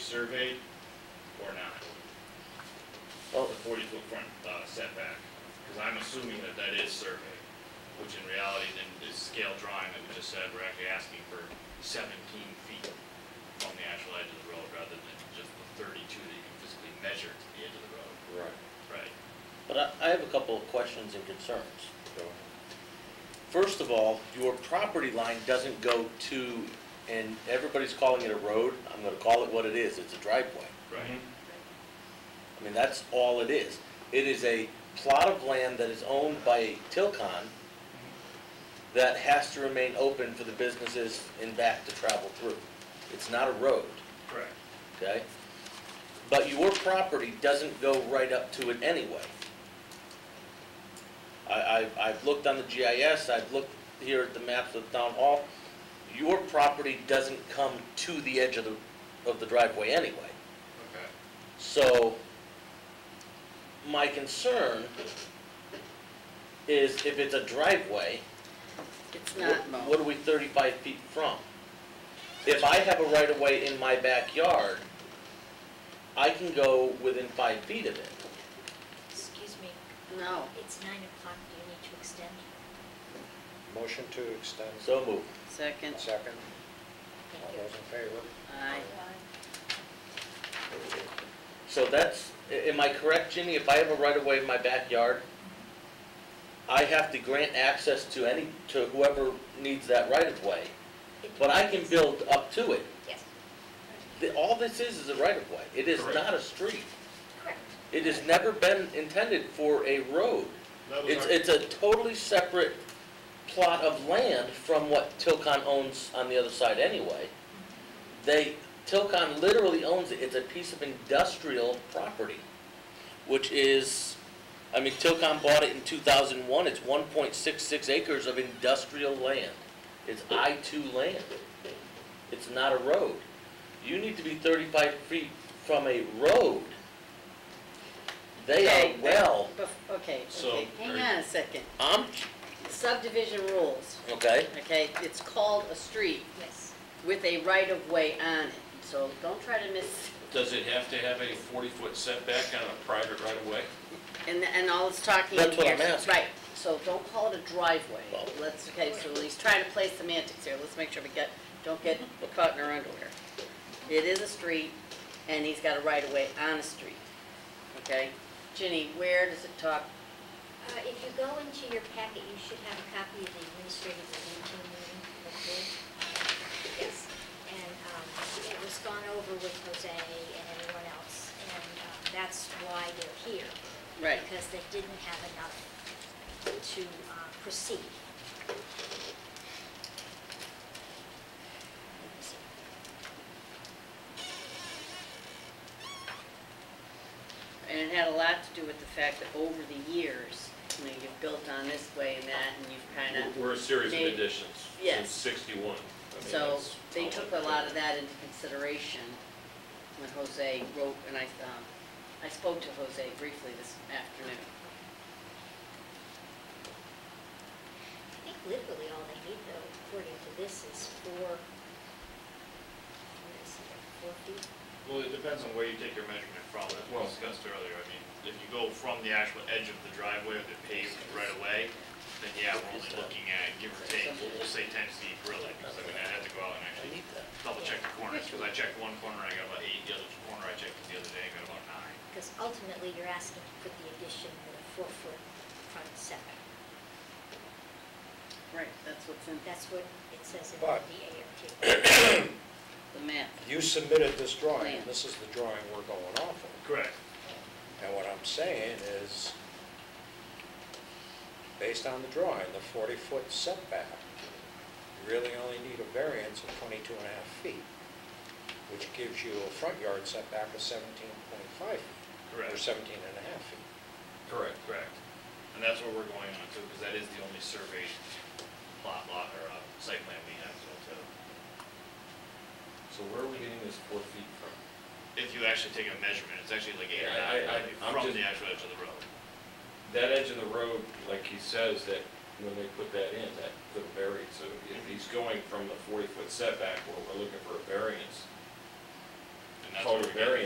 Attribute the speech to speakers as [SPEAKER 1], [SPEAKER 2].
[SPEAKER 1] surveyed or not?
[SPEAKER 2] Well-
[SPEAKER 1] The forty-foot front uh, setback, because I'm assuming that that is surveyed, which in reality then this scale drawing that we just said, we're actually asking for seventeen feet from the actual edge of the road rather than just the thirty-two that you can physically measure to the edge of the road,
[SPEAKER 3] Right,
[SPEAKER 1] right?
[SPEAKER 2] But I, I have a couple of questions and concerns.
[SPEAKER 3] so,
[SPEAKER 2] First of all, your property line doesn't go to, and everybody's calling it a road, I'm gonna call it what it is, it's a driveway.
[SPEAKER 1] Right,
[SPEAKER 2] I mean, that's all it is. It is a plot of land that is owned by Tilcon that has to remain open for the businesses in back to travel through. It's not a road,
[SPEAKER 4] Mm-hmm.
[SPEAKER 1] correct.
[SPEAKER 2] okay? But your property doesn't go right up to it anyway. I, I, I've looked on the GIS, I've looked here at the maps of the town hall. Your property doesn't come to the edge of the, of the driveway anyway.
[SPEAKER 1] Okay.
[SPEAKER 2] So, my concern is if it's a driveway,
[SPEAKER 5] It's
[SPEAKER 2] what,
[SPEAKER 5] not mowed.
[SPEAKER 2] what are we thirty-five feet from? If I have a right-of-way in my backyard, I can go within five feet of it.
[SPEAKER 6] Excuse me,
[SPEAKER 5] No,
[SPEAKER 6] it's nine o'clock, do you need to extend?
[SPEAKER 3] motion to extend,
[SPEAKER 2] So move.
[SPEAKER 5] second,
[SPEAKER 3] second, all
[SPEAKER 6] Thank you.
[SPEAKER 3] those in favor?
[SPEAKER 5] aye.
[SPEAKER 2] So that's, a- am I correct, Ginny? If I have a right-of-way in my backyard, I have to grant access to any, to whoever needs that right-of-way,
[SPEAKER 6] It-
[SPEAKER 2] but I can build up to it.
[SPEAKER 6] Yes,
[SPEAKER 2] The- All this is, is a right-of-way. It is
[SPEAKER 1] Correct.
[SPEAKER 2] not a street.
[SPEAKER 6] correct.
[SPEAKER 2] It has never been intended for a road.
[SPEAKER 1] That was
[SPEAKER 2] It's,
[SPEAKER 1] our-
[SPEAKER 2] it's a totally separate plot of land from what Tilcon owns on the other side anyway. They, Tilcon literally owns it. It's a piece of industrial property, which is, I mean, Tilcon bought it in two thousand and one. It's one point six six acres of industrial land. It's I two land. It's not a road. You need to be thirty-five feet from a road. They
[SPEAKER 5] Okay,
[SPEAKER 2] are well,
[SPEAKER 5] bef- Okay,
[SPEAKER 1] So,
[SPEAKER 5] okay, hang on a second.
[SPEAKER 2] I'm,
[SPEAKER 5] Subdivision rules,
[SPEAKER 2] okay?
[SPEAKER 5] okay, it's called a street
[SPEAKER 6] Yes,
[SPEAKER 5] with a right-of-way on it, so don't try to miss,
[SPEAKER 4] Does it have to have a 40-foot setback on a private right-of-way?
[SPEAKER 5] and, and all it's talking in here.
[SPEAKER 2] That's what I'm asking.
[SPEAKER 5] Right, so don't call it a driveway,
[SPEAKER 2] Well-
[SPEAKER 5] let's, okay, so he's trying to play semantics here, let's make sure we get, don't get caught in our underwear. It is a street, and he's got a right-of-way on a street, okay? Ginny, where does it talk
[SPEAKER 6] uh, if you go into your packet, you should have a copy of the administrative review meeting, hopefully. Yes, and, um, it was gone over with Jose and everyone else, and, um, that's why they're here.
[SPEAKER 5] Right,
[SPEAKER 6] Because they didn't have enough to, uh, proceed. Let me see.
[SPEAKER 5] and it had a lot to do with the fact that over the years, you know, you've built on this way and that, and you've kind of,
[SPEAKER 4] We're a series of
[SPEAKER 5] They-
[SPEAKER 4] additions
[SPEAKER 5] Yes.
[SPEAKER 4] since 61. I mean,
[SPEAKER 5] so
[SPEAKER 4] that's
[SPEAKER 5] they
[SPEAKER 4] all
[SPEAKER 5] took a
[SPEAKER 4] I've
[SPEAKER 5] lot
[SPEAKER 4] done.
[SPEAKER 5] of that into consideration when Jose wrote, and I, um, I spoke to Jose briefly this afternoon.
[SPEAKER 6] I think literally all they need though, according to this, is four, what is it, four feet?
[SPEAKER 1] Well, it depends on where you take your measurement from, as we
[SPEAKER 4] Well-
[SPEAKER 1] discussed earlier. I mean, if you go from the actual edge of the driveway or the paved right away, then yeah, we're only looking at, give or take, we'll we'll say ten feet really, because I mean, I had to go out and
[SPEAKER 2] I
[SPEAKER 1] actually
[SPEAKER 2] need that.
[SPEAKER 1] double check the corners, because I checked one corner, I got about eight, the other corner I checked the other day, I got about nine.
[SPEAKER 6] Because ultimately, you're asking to put the addition with a four-foot front setback.
[SPEAKER 5] Right, that's what's in
[SPEAKER 6] That's what it says in the
[SPEAKER 3] But-
[SPEAKER 6] ART.
[SPEAKER 5] the map.
[SPEAKER 3] You submitted this drawing,
[SPEAKER 5] Plan.
[SPEAKER 3] this is the drawing we're going off of.
[SPEAKER 1] Correct.
[SPEAKER 3] And what I'm saying is, based on the drawing, the 40-foot setback, you really only need a variance of 22 and a half feet, which gives you a front yard setback of 17.5 feet, or
[SPEAKER 1] Correct,
[SPEAKER 3] 17 and a half feet.
[SPEAKER 4] Correct.
[SPEAKER 1] correct. And that's what we're going on too, because that is the only surveyed plot lot or uh, site plan we have, so too.
[SPEAKER 4] So where are we getting this four feet from?
[SPEAKER 1] If you actually take a measurement, it's actually like eight or
[SPEAKER 4] Yeah, I-
[SPEAKER 1] nine,
[SPEAKER 4] I-
[SPEAKER 1] like,
[SPEAKER 4] I'm
[SPEAKER 1] from
[SPEAKER 4] just-
[SPEAKER 1] the actual edge of the road.
[SPEAKER 4] That edge of the road, like he says, that when they put that in, that could vary. So if he's going from the 40-foot setback where we're looking for a variance,
[SPEAKER 1] And and that's what
[SPEAKER 4] Called a
[SPEAKER 1] we're getting at.